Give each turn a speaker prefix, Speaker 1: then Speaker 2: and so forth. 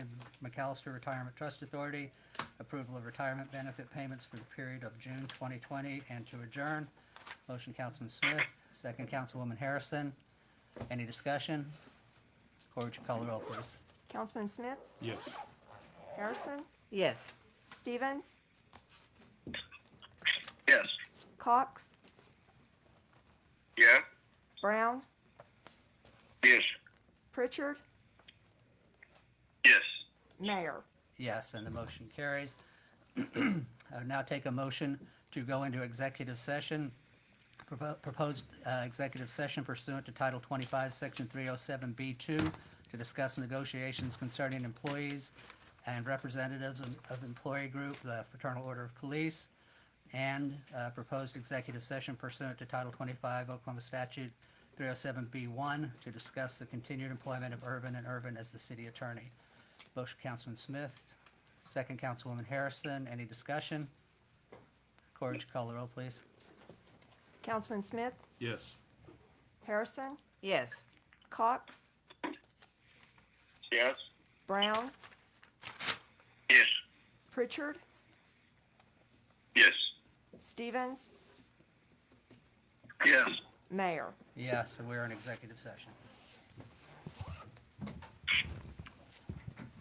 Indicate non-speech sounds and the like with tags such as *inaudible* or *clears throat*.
Speaker 1: McAllister Retirement Trust Authority, approval of retirement benefit payments for the period of June 2020, and to adjourn. Motion, Councilman Smith, second, Councilwoman Harrison. Any discussion? Corr, would you call the roll, please?
Speaker 2: Councilman Smith,
Speaker 3: Yes.
Speaker 2: Harrison,
Speaker 4: Yes.
Speaker 2: Stevens,
Speaker 5: Yes.
Speaker 2: Cox,
Speaker 5: Yeah.
Speaker 2: Brown,
Speaker 5: Yes.
Speaker 2: Pritchard,
Speaker 5: Yes.
Speaker 2: Mayor.
Speaker 1: Yes, and the motion carries. *clears throat* I would now take a motion to go into executive session. Propo- Proposed uh, executive session pursuant to Title 25, Section 307B2, to discuss negotiations concerning employees and representatives of- of employee group, the Fraternal Order of Police, and uh, proposed executive session pursuant to Title 25 Oklahoma Statute 307B1, to discuss the continued employment of Irvin and Irvin as the city attorney. Motion, Councilman Smith, second Councilwoman Harrison. Any discussion? Corr, would you call the roll, please?
Speaker 2: Councilman Smith,
Speaker 3: Yes.
Speaker 2: Harrison,
Speaker 4: Yes.
Speaker 2: Cox,
Speaker 5: Yes.
Speaker 2: Brown,
Speaker 5: Yes.
Speaker 2: Pritchard,
Speaker 5: Yes.
Speaker 2: Stevens,
Speaker 5: Yes.
Speaker 2: Mayor.
Speaker 1: Yes, so we're in executive session.